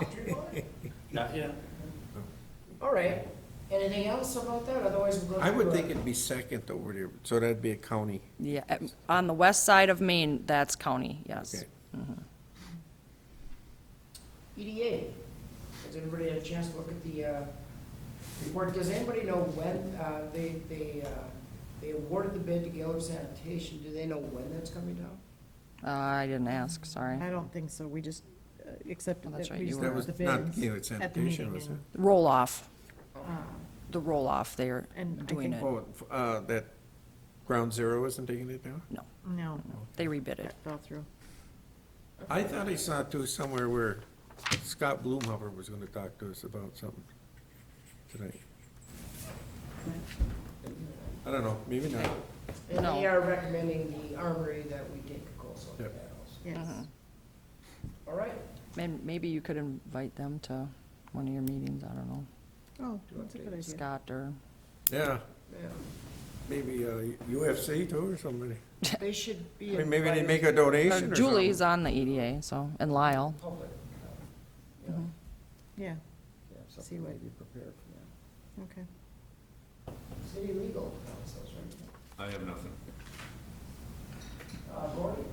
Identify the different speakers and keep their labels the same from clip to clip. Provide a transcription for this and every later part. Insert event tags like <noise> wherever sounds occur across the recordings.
Speaker 1: <laughs>
Speaker 2: Not yet.
Speaker 3: All right. Anything else about that? Otherwise, we'll go.
Speaker 1: I would
Speaker 3: to, uh,
Speaker 1: think it'd be second over there, so that'd be a county.
Speaker 4: Yeah, at- on the west side of Maine, that's county, yes.
Speaker 1: Okay.
Speaker 3: EDA. E Has anybody had a chance to look at the uh, report? Does anybody know when uh, they, they, uh, they awarded the bid to Gaylord Sanitation? Do they know when that's coming down?
Speaker 4: Uh, I didn't ask, sorry.
Speaker 5: I don't think so, we just uh, accepted
Speaker 4: Oh, that's
Speaker 5: that,
Speaker 4: right,
Speaker 5: we
Speaker 4: you
Speaker 5: just
Speaker 4: were-
Speaker 1: That was
Speaker 5: the bids.
Speaker 1: not Gaylord
Speaker 5: at the meeting,
Speaker 1: Sanitation, was it?
Speaker 4: Roll-off,
Speaker 5: yeah.
Speaker 4: the roll-off, they're
Speaker 5: And I
Speaker 4: doing
Speaker 5: think-
Speaker 4: it.
Speaker 1: Oh, f- uh, that Ground Zero isn't taking it down?
Speaker 4: No,
Speaker 5: Uh, No,
Speaker 4: they rebid it.
Speaker 5: that fell through.
Speaker 1: I thought I saw too somewhere where Scott Blumhofer was gonna talk to us about something tonight. I don't know, maybe not.
Speaker 3: And they
Speaker 4: No.
Speaker 3: are recommending the armory that we take a close look at
Speaker 1: Yep.
Speaker 3: also.
Speaker 4: Uh-huh.
Speaker 5: Yes.
Speaker 3: All right.
Speaker 4: And maybe you could invite them to one of your meetings, I don't know,
Speaker 5: Oh, that's a good idea.
Speaker 4: Scott or,
Speaker 1: Yeah,
Speaker 3: Yeah.
Speaker 1: maybe uh, UFC too or somebody.
Speaker 3: They should be.
Speaker 1: I mean, maybe they
Speaker 3: invited
Speaker 1: make a
Speaker 4: or
Speaker 1: donation or something.
Speaker 4: Julie's on the EDA, so, and Lyle.
Speaker 3: Public. Yeah.
Speaker 5: Yeah,
Speaker 3: Yeah, something
Speaker 5: See what-
Speaker 3: to Be prepared for
Speaker 5: okay.
Speaker 3: that. City legal counsels, right?
Speaker 6: I have nothing.
Speaker 3: Uh, Gordon?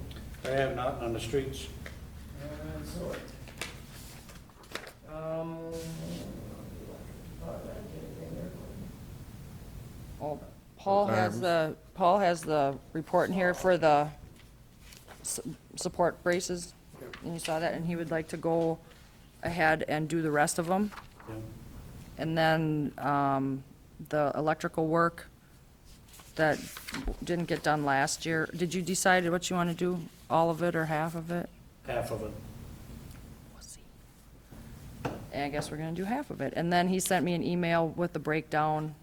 Speaker 2: I have not on the streets.
Speaker 3: And so it. Um.
Speaker 4: Well, Paul has
Speaker 1: Arms.
Speaker 4: the, Paul has the report in here for the su- support braces, and you saw that, and he would like to go ahead and do the rest of them.
Speaker 2: Yeah.
Speaker 4: And then um, the electrical work that didn't get done last year, did you decide what you want to do, all of it or half of it?
Speaker 2: Half of it.
Speaker 4: We'll see. And I guess we're gonna do half of it. And then he sent me an email with the breakdown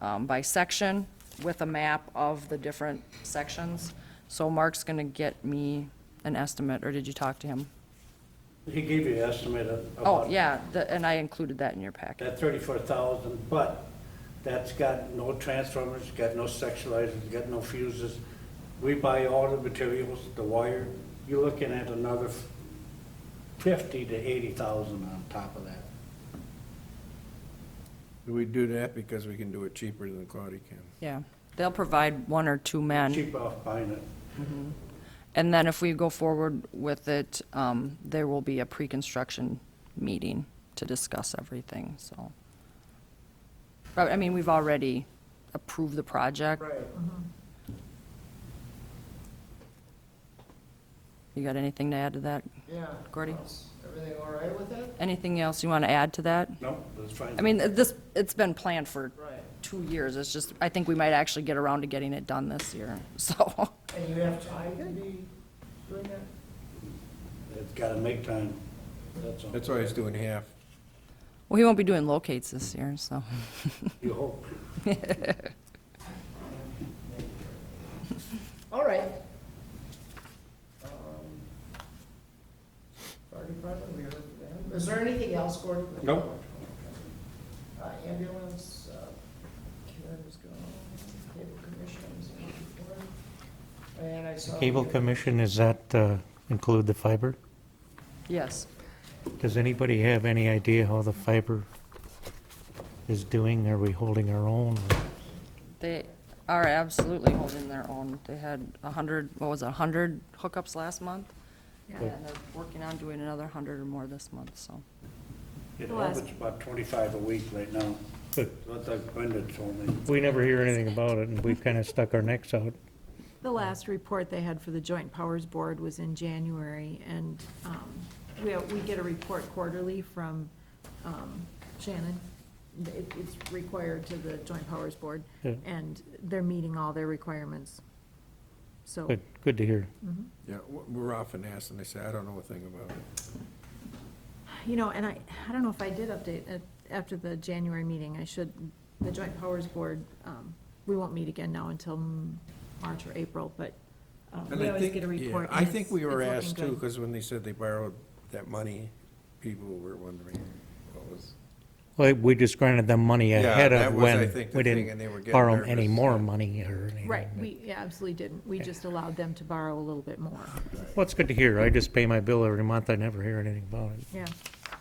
Speaker 4: um, by section, with a map of the different sections. So Mark's gonna get me an estimate, or did you talk to him?
Speaker 2: He gave you an estimate of.
Speaker 4: Oh,
Speaker 2: about
Speaker 4: yeah, the- and I included that in your packet.
Speaker 2: uh, That thirty-four thousand, but that's got no transformers, got no sexualizers, got no fuses. We buy all the materials, the wire. You're looking at another fifty to eighty thousand on top of that.
Speaker 1: We do that because we can do it cheaper than Claudia can.
Speaker 4: Yeah, they'll provide one or two men.
Speaker 2: Cheap off buying it.
Speaker 4: And then if we go forward with it, um, there will be a pre-construction meeting to discuss everything, so. But, I mean, we've already approved the project.
Speaker 3: Right.
Speaker 4: You got anything to add to that?
Speaker 3: Yeah.
Speaker 4: Gordy?
Speaker 3: Everything all right with that?
Speaker 4: Anything else you want to add to that?
Speaker 2: No, that's fine.
Speaker 4: I mean, this, it's been planned for
Speaker 3: Right.
Speaker 4: two years, it's just, I think we might actually get around to getting it done this year, <laughs> so.
Speaker 3: And you have time to be doing that?
Speaker 2: It's gotta make time, that's all.
Speaker 1: That's why he's doing half.
Speaker 4: Well, he won't be doing locates this year, so.
Speaker 2: You hope.
Speaker 3: All right. Um, Fire department, we heard from them. Is there anything else, Gordon?
Speaker 2: Nope.
Speaker 3: Uh, ambulance, uh, Karen was gone, cable commission was on before. And I saw.
Speaker 7: Cable commission, is that uh, include the fiber?
Speaker 4: Yes,
Speaker 7: Does anybody have any idea how the fiber is doing? Are we holding our own? <laughs>
Speaker 4: they are absolutely holding their own. They had a hundred, what was it, a hundred hookups last month? And
Speaker 7: Yeah.
Speaker 4: they're working on doing another hundred or more this month, so.
Speaker 2: It
Speaker 5: Well, that's-
Speaker 2: averages about twenty-five a week right now.
Speaker 7: But
Speaker 2: What the Brenda told me.
Speaker 7: we never hear anything about it, and we've kind of stuck our necks out.
Speaker 5: The last report they had for the Joint Powers Board was in January, and um, we, we get a report quarterly from um, Shannon. It- It's required to the Joint Powers Board,
Speaker 7: Yeah.
Speaker 5: and they're meeting all their requirements. So, mm-hmm.
Speaker 7: Good, good to hear.
Speaker 1: Yeah, w- we're often asked, and they say, I don't know a thing about it.
Speaker 5: you know, and I, I don't know if I did update it after the January meeting, I should, the Joint Powers Board, um, we won't meet again now until mm, March or April, but um,
Speaker 1: And
Speaker 5: we
Speaker 1: I
Speaker 5: always
Speaker 1: think-
Speaker 5: get a
Speaker 1: yeah,
Speaker 5: report.
Speaker 1: I
Speaker 5: and
Speaker 1: think
Speaker 5: it's-
Speaker 1: we were
Speaker 5: it's looking
Speaker 1: asked too,
Speaker 5: good.
Speaker 1: because when they said they borrowed that money, people were wondering what was.
Speaker 7: Well, we just granted them money
Speaker 1: Yeah,
Speaker 7: ahead
Speaker 1: that
Speaker 7: of
Speaker 1: was, I
Speaker 7: when
Speaker 1: think, the
Speaker 7: we
Speaker 1: thing, and they were
Speaker 7: didn't
Speaker 1: getting
Speaker 7: borrow 'em any
Speaker 1: nervous.
Speaker 7: more money or anything.
Speaker 5: Right, we yeah, absolutely didn't. We just allowed them
Speaker 1: <laughs>
Speaker 5: to borrow a little bit more.
Speaker 7: Well, it's good to hear. I just pay my bill every month. I never hear anything about it.
Speaker 5: Yeah,